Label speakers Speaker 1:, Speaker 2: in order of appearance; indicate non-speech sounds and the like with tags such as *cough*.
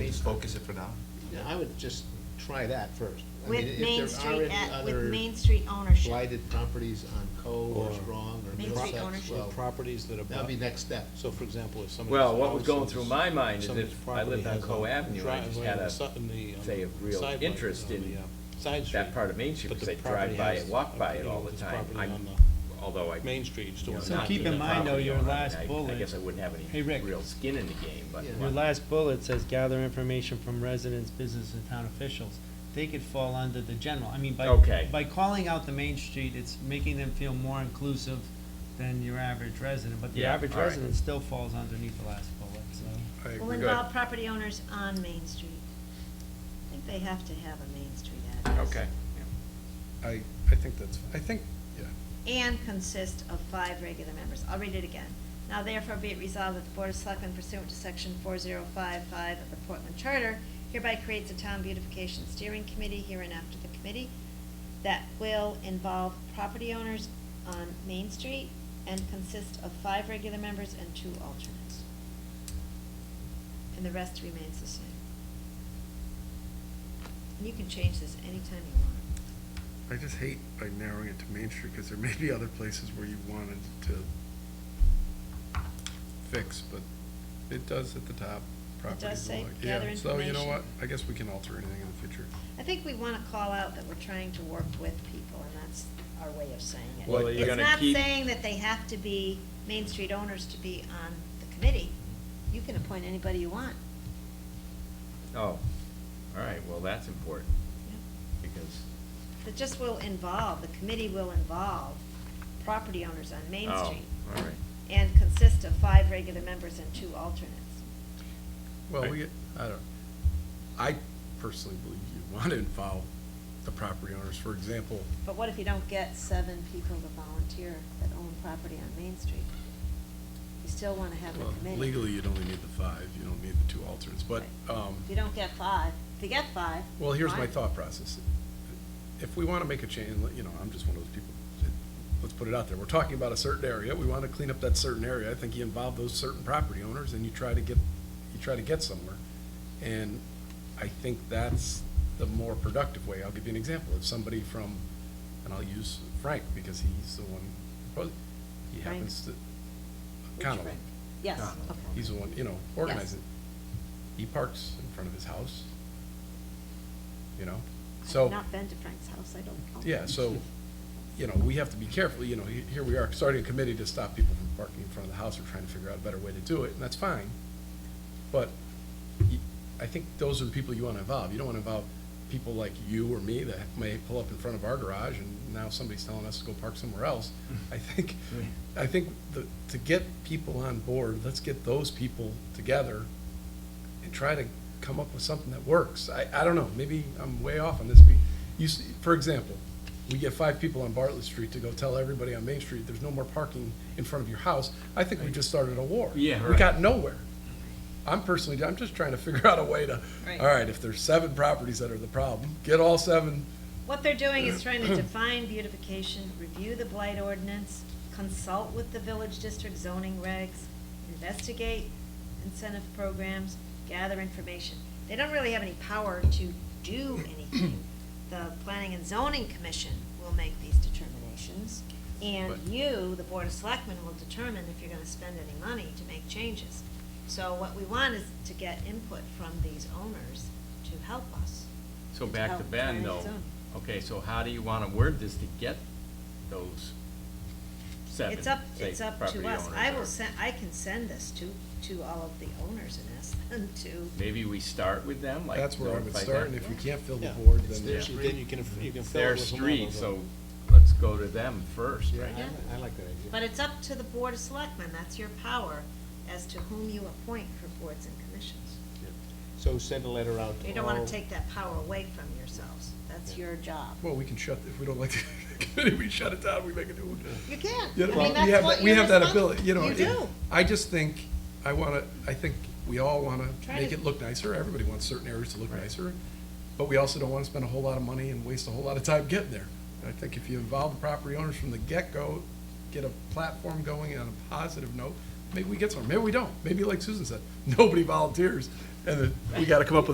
Speaker 1: just focus it for now?
Speaker 2: Yeah, I would just try that first. I mean, if
Speaker 3: With Main
Speaker 2: there are
Speaker 3: Street,
Speaker 2: any
Speaker 3: at- with
Speaker 2: other
Speaker 3: Main Street ownership.
Speaker 2: Blighted properties on Cove or
Speaker 4: Or-
Speaker 2: Strong or
Speaker 3: Main Street
Speaker 2: Middlesex,
Speaker 3: ownership.
Speaker 4: Or
Speaker 2: well,
Speaker 4: properties that are.
Speaker 2: that'd be next step.
Speaker 4: So for example, if somebody's.
Speaker 5: Well, what was
Speaker 4: house
Speaker 5: going
Speaker 4: is-
Speaker 5: through my mind is
Speaker 4: somebody's
Speaker 5: if I lived
Speaker 4: property
Speaker 5: on
Speaker 4: has a
Speaker 5: Coe Avenue, I just
Speaker 4: driveway
Speaker 5: had
Speaker 4: on the
Speaker 5: a,
Speaker 4: si- in the, um,
Speaker 5: say, a real
Speaker 4: side
Speaker 5: interest
Speaker 4: lot, on
Speaker 5: in
Speaker 4: the, uh, Side street.
Speaker 5: that part of Main Street,
Speaker 4: But
Speaker 5: because
Speaker 4: the
Speaker 5: I drive
Speaker 4: property
Speaker 5: by
Speaker 4: has
Speaker 5: it, walk
Speaker 4: a-
Speaker 5: by it
Speaker 4: you know,
Speaker 5: all the
Speaker 4: there's
Speaker 5: time.
Speaker 4: property
Speaker 5: I,
Speaker 4: on the
Speaker 5: although I.
Speaker 4: Main Street, still.
Speaker 5: you know,
Speaker 4: on
Speaker 6: So
Speaker 5: not
Speaker 4: that.
Speaker 6: keep
Speaker 5: being
Speaker 6: in
Speaker 5: a
Speaker 6: mind, though,
Speaker 5: property
Speaker 6: your
Speaker 5: owner,
Speaker 6: last
Speaker 5: I- I
Speaker 6: bullet-
Speaker 5: guess I wouldn't have any
Speaker 6: Hey, Rick.
Speaker 5: real skin in the game, but.
Speaker 2: Yeah.
Speaker 6: Your last bullet says gather information from residents, business, and town officials. They could fall under the general, I mean, by.
Speaker 5: Okay.
Speaker 6: By calling out the main street, it's making them feel more inclusive than your average resident, but the
Speaker 5: Yeah,
Speaker 6: average
Speaker 5: all right.
Speaker 6: resident still falls underneath the last bullet, so.
Speaker 3: Will involve property owners on Main Street. I think they have to have a Main Street address.
Speaker 5: Okay.
Speaker 4: I, I think that's, I think, yeah.
Speaker 3: and consist of five regular members. I'll read it again. Now therefore be it resolved that the Board of Selectmen pursuant to section four zero five five of the Portland Charter hereby creates a town beautification steering committee hereinafter the committee that will involve property owners on Main Street and consist of five regular members and two alternates. And the rest remains the same. And you can change this anytime you want.
Speaker 7: I just hate by narrowing it to Main Street, because there may be other places where you wanted to fix, but it does at the top, properties
Speaker 3: say,
Speaker 7: alike. Yeah,
Speaker 3: gather
Speaker 7: So you know
Speaker 3: information.
Speaker 7: what, I guess we can alter anything in the future.
Speaker 3: I think we want to call out that we're trying to work with people, and that's our way of saying it.
Speaker 5: Well, you're gonna
Speaker 3: It's
Speaker 5: keep-
Speaker 3: not saying that they have to be Main Street owners to be on the committee. You can appoint anybody you want.
Speaker 5: Oh, all right, well, that's important, because,
Speaker 3: It just will involve, the committee will involve property owners on Main
Speaker 5: oh,
Speaker 3: Street
Speaker 5: all right.
Speaker 3: and consist of five regular members and two alternates.
Speaker 7: Well,
Speaker 5: Right.
Speaker 7: we, I don't, I personally believe you want to involve the property owners, for example,
Speaker 3: But what if you don't get seven people to volunteer that own property on Main Street? You still want to have a
Speaker 7: well,
Speaker 3: committee.
Speaker 7: legally, you'd only need the five, you don't need the two alternates, but, um.
Speaker 3: If you don't get five, if you get five.
Speaker 7: Well, here's my
Speaker 3: fine.
Speaker 7: thought process. If we want to make a change, you know, I'm just one of those people, let's put it out there. We're talking about a certain area, we want to clean up that certain area. I think you involve those certain property owners and you try to get, you try to get somewhere. And I think that's the more productive way. I'll give you an example. If somebody from, and I'll use Frank because he's the one, proposing. he
Speaker 3: Frank?
Speaker 7: happens to,
Speaker 3: Which
Speaker 7: Connell.
Speaker 3: friend? Yes,
Speaker 5: Connell.
Speaker 3: okay.
Speaker 7: Ah, He's the one, you know, organizing. He parks in front of his house, you know? So.
Speaker 3: I've not been to Frank's house, I don't. know.
Speaker 7: Yeah, so, you know, we have to be careful, you know, he- here we are, starting a committee to stop people from parking in front of the house, we're trying to figure out a better way to do it, and that's fine. But you- I think those are the people you want to involve. You don't want to involve people like you or me that may pull up in front of our garage and now somebody's telling us to go park somewhere
Speaker 5: *laughs*
Speaker 7: else. I think, I think the, to get people on board, let's get those people together and try to come up with something that works. I, I don't know, maybe I'm way off on this. Be- You, s- for example, we get five people on Bartlett Street to go tell everybody on Main Street, there's no more parking in front of your house. I think we just started a war.
Speaker 5: Yeah,
Speaker 7: We
Speaker 5: right.
Speaker 7: got nowhere. I'm personally, I'm just trying to figure *laughs* out a way to,
Speaker 3: Right.
Speaker 7: all right, if there's seven properties that are the problem, get all seven.
Speaker 3: What they're doing is trying to define beautification, review the blight ordinance, consult with the village district zoning regs, investigate incentive programs, gather information. They don't really have any power to do anything. The Planning and Zoning Commission will make these determinations, and
Speaker 7: But-
Speaker 3: you, the Board of Selectmen, will determine if you're gonna spend any money to make changes. So what we want is to get input from these owners to help us.
Speaker 5: So
Speaker 3: It's
Speaker 5: back to
Speaker 3: about
Speaker 5: Ben,
Speaker 3: planning
Speaker 5: though.
Speaker 3: zone.
Speaker 5: Okay, so how do you want to word this to get those seven,
Speaker 3: It's up,
Speaker 5: say,
Speaker 3: it's up
Speaker 5: property
Speaker 3: to us.
Speaker 5: owners
Speaker 3: I
Speaker 5: or-
Speaker 3: will send, I can send this to, to all of the owners and ask them *laughs* to.
Speaker 5: Maybe we start with them, like.
Speaker 7: That's where I would
Speaker 5: notify
Speaker 7: start,
Speaker 5: them.
Speaker 7: and if we can't fill the
Speaker 4: Yeah,
Speaker 7: board,
Speaker 4: it's
Speaker 7: then.
Speaker 4: their
Speaker 5: yeah.
Speaker 4: street, Then you can, you can
Speaker 5: It's
Speaker 4: fill it
Speaker 5: their
Speaker 4: with whomever,
Speaker 5: street,
Speaker 4: but-
Speaker 5: so let's go to them first,
Speaker 2: Yeah,
Speaker 5: right?
Speaker 3: Yeah.
Speaker 2: I- I like that idea.
Speaker 3: But it's up to the Board of Selectmen, that's your power, as to whom you appoint for boards and commissions.
Speaker 2: So send a letter out to all.
Speaker 3: You don't wanna take that power away from yourselves, that's your
Speaker 7: *laughs*
Speaker 3: job.
Speaker 7: Well, we can shut, if we don't like the *laughs* committee, we shut it down, we make a new one.
Speaker 3: You can,
Speaker 7: Yeah,
Speaker 3: I
Speaker 7: well,
Speaker 3: mean,
Speaker 7: we have
Speaker 3: that's what
Speaker 7: that- we
Speaker 3: you're
Speaker 7: have that
Speaker 3: responsible-
Speaker 7: ability, you know,
Speaker 3: You
Speaker 7: it-
Speaker 3: do.
Speaker 7: I just think, I want to, I think we all want to
Speaker 3: Try
Speaker 7: make
Speaker 3: to-
Speaker 7: it look nicer. Everybody wants certain areas to look nicer. But we also don't want to spend a whole lot of money and waste a whole lot of time getting there. And I think if you involve the property owners from the get-go, get a platform going on a positive *laughs* note, maybe we get somewhere. Maybe we don't. Maybe like Susan said, nobody volunteers. And then we got to come up with